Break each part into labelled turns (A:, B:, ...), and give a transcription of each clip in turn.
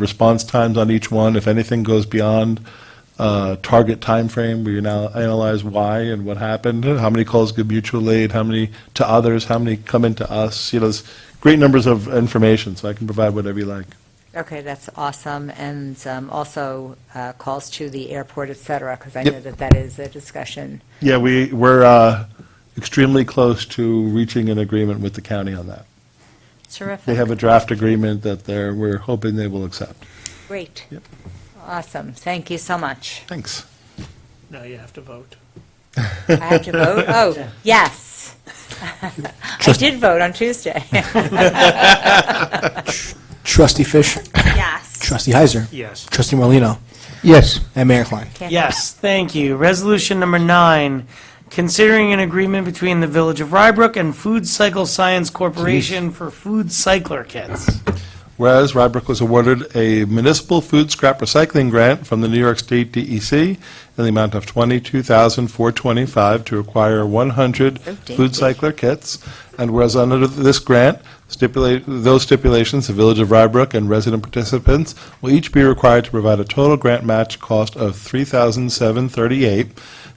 A: response times on each one, if anything goes beyond uh, target timeframe, we now analyze why and what happened, how many calls get mutual aid, how many to others, how many come into us, you know, there's great numbers of information, so I can provide whatever you like.
B: Okay, that's awesome, and um, also uh, calls to the airport, et cetera, because I
A: Yep.
B: know that that is a discussion.
A: Yeah, we, we're uh, extremely close to reaching an agreement with the county on that. They
B: Terrific,
A: have a draft agreement that they're, we're hoping they will accept.
B: great.
A: Yep.
B: Awesome, thank you so much.
A: Thanks.
C: Now you have to vote.
B: I have to vote? Oh, yes. I did vote on Tuesday.
D: Trustee Fish.
B: Yes.
D: Trustee Heiser.
C: Yes.
D: Trustee Morlino,
E: Yes,
D: And Mayor Klein.
B: Okay.
F: Yes, thank you. Resolution number nine, considering an agreement between the Village of Rybrook and Food Cycle Science Corporation for food cycler kits.
A: Whereas Rybrook was awarded a municipal food scrap recycling grant from the New York State DEC in the amount of $22,425 to acquire 100 food cycler kits. And whereas under this grant, stipulate, those stipulations, the Village of Rybrook and resident participants will each be required to provide a total grant match cost of $3,738.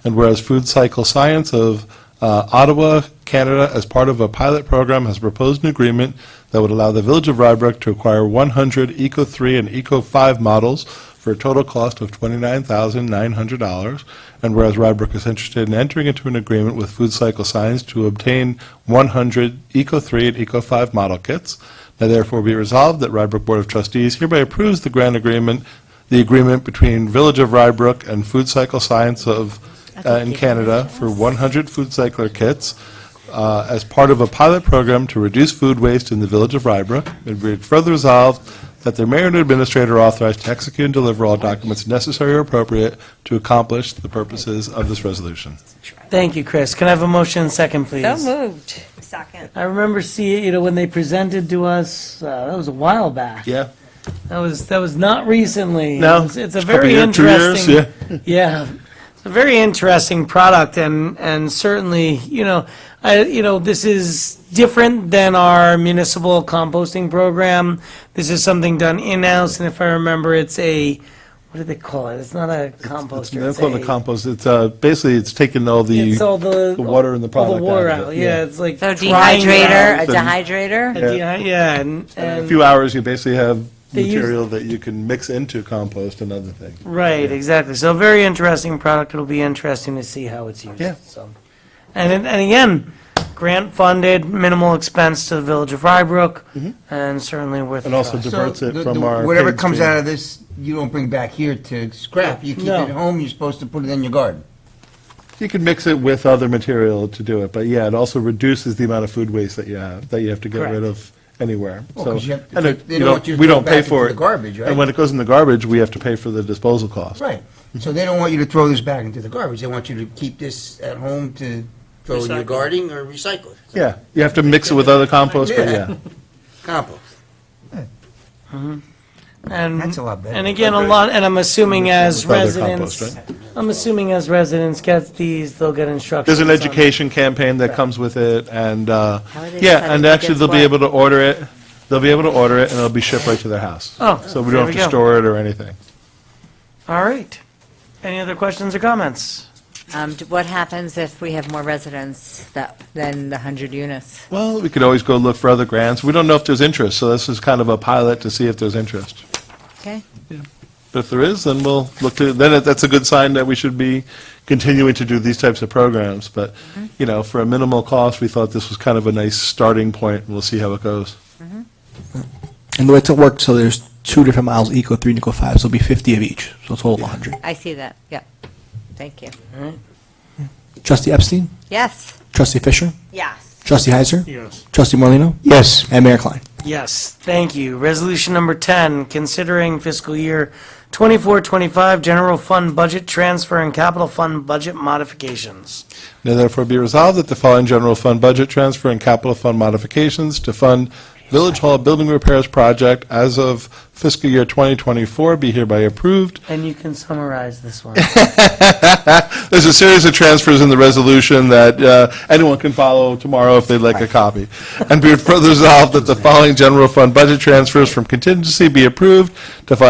A: And whereas Food Cycle Science of uh, Ottawa, Canada, as part of a pilot program, has proposed an agreement that would allow the Village of Rybrook to acquire 100 Eco 3 and Eco 5 models for a total cost of $29,900. And whereas Rybrook is interested in entering into an agreement with Food Cycle Science to obtain 100 Eco 3 and Eco 5 model kits, now therefore be resolved that Rybrook Board of Trustees hereby approves the grant agreement, the agreement between Village of Rybrook and Food Cycle Science of, uh, in Canada for 100 food cycler kits uh, as part of a pilot program to reduce food waste in the village of Rybrook. And be it further resolved that the mayor and administrator are authorized to execute and deliver all documents necessary or appropriate to accomplish the purposes of this resolution.
F: Thank you, Chris. Can I have a motion and second, please?
B: So moved. Second.
F: I remember seeing, you know, when they presented to us, uh, that was a while back.
A: Yeah?
F: That was, that was not recently.
A: No,
F: It's- It's a
A: couple
F: very
A: year- two years,
F: interesting. Yeah, it's a very interesting product, and and certainly, you know, I, you know, this is different than our municipal composting program. This is something done in house, and if I remember, it's a what do they call it? It's not a
A: It's
F: composter.
A: not called a
F: a-
A: compost, it's, uh, basically, it's taken all the,
F: It's all the,
A: the water and the
F: all
A: product
F: the water
A: out
F: out.
A: of it,
F: Yeah,
A: yeah.
F: it's like
B: So
F: drying
B: dehydrator, a
F: out.
A: and-
B: dehydrator?
F: A dehy- yeah, and,
A: a
F: and
A: few hours, you basically have
F: They use-
A: material that you can mix into compost and other things.
F: Right, exactly. So a very interesting product. It'll be interesting to see how it's used.
A: Yeah.
F: So, and then- and again, grant funded, minimal expense to the village of Rybrook, and certainly worth.
A: Mm-hmm. And
F: a
A: also
F: try.
A: diverts
E: So
A: it
E: the-
A: from
E: the-
A: our.
E: Whatever
A: paid
E: comes
A: stream.
E: out of this, you don't bring back here to scrap. You keep it
F: No.
E: at home, you're supposed to put it in your garden.
A: You can mix it with other material to do it, but yeah, it also reduces the amount of food waste that you have, that you have to get
F: Correct.
A: rid of anywhere.
E: Well,
A: So,
E: 'cause you have to
A: and
E: take-
A: it-
E: they
A: you
E: don't
A: don't-
E: want you to
A: we
E: throw
A: don't
E: it
A: pay
E: back
A: for
E: into
A: it.
E: the garbage, right?
A: And when it goes in the garbage, we have to pay for the disposal cost.
E: Right. So they don't want you to throw this back into the garbage. They want you to keep this at home to throw in your
C: Recycle.
E: garden or recycle it.
A: Yeah, you have to mix it with other compost, but
E: Yeah.
A: yeah.
E: Compost.
F: And,
E: That's a lot better.
F: And again, a lot. And I'm assuming as
A: With other
F: residents,
A: compost,
F: I'm assuming as residents get these, they'll get instructions.
A: There's an
F: on-
A: education campaign that comes with it, and, uh,
B: How are
A: yeah,
B: they deciding
A: and
B: who
A: actually,
B: gets
A: they'll be
B: what?
A: able to order it, they'll be able to order it, and it'll be shipped right to their house.
F: Oh,
A: So we
F: there
A: don't
F: we
A: have to
F: go.
A: store it or anything.
F: All right. Any other questions or comments?
B: Um, d- What happens if we have more residents that- than the 100 units?
A: Well, we could always go look for other grants. We don't know if there's interest, so this is kind of a pilot to see if there's interest.
B: Okay,
A: But if there is, then we'll look to, then it- that's a good sign that we should be continuing to do these types of programs. But, you know, for a minimal cost, we thought this was kind of a nice starting point, and we'll see how it goes.
D: And the way it's worked, so there's two different models, Eco 3 and Eco 5, so it'll be 50 of each, so a total of 100.
B: I see that, yep. Thank you.
D: Trustee Epstein.
B: Yes?
D: Trustee Fisher.
B: Yes.
D: Trustee Heiser.
C: Yes.
D: Trustee Morlino,
E: Yes.
D: And Mayor Klein.
F: Yes, thank you. Resolution number 10, considering fiscal year 24-25 general fund budget transfer and capital fund budget modifications.
A: Now therefore be resolved that the following general fund budget transfer and capital fund modifications to fund Village Hall Building Repairs Project as of fiscal year 2024 be hereby approved.
F: And you can summarize this one.
A: There's a series of transfers in the resolution that uh, anyone can follow tomorrow if they'd like a copy. And be it further resolved that the following general fund budget transfers from contingency be approved to fund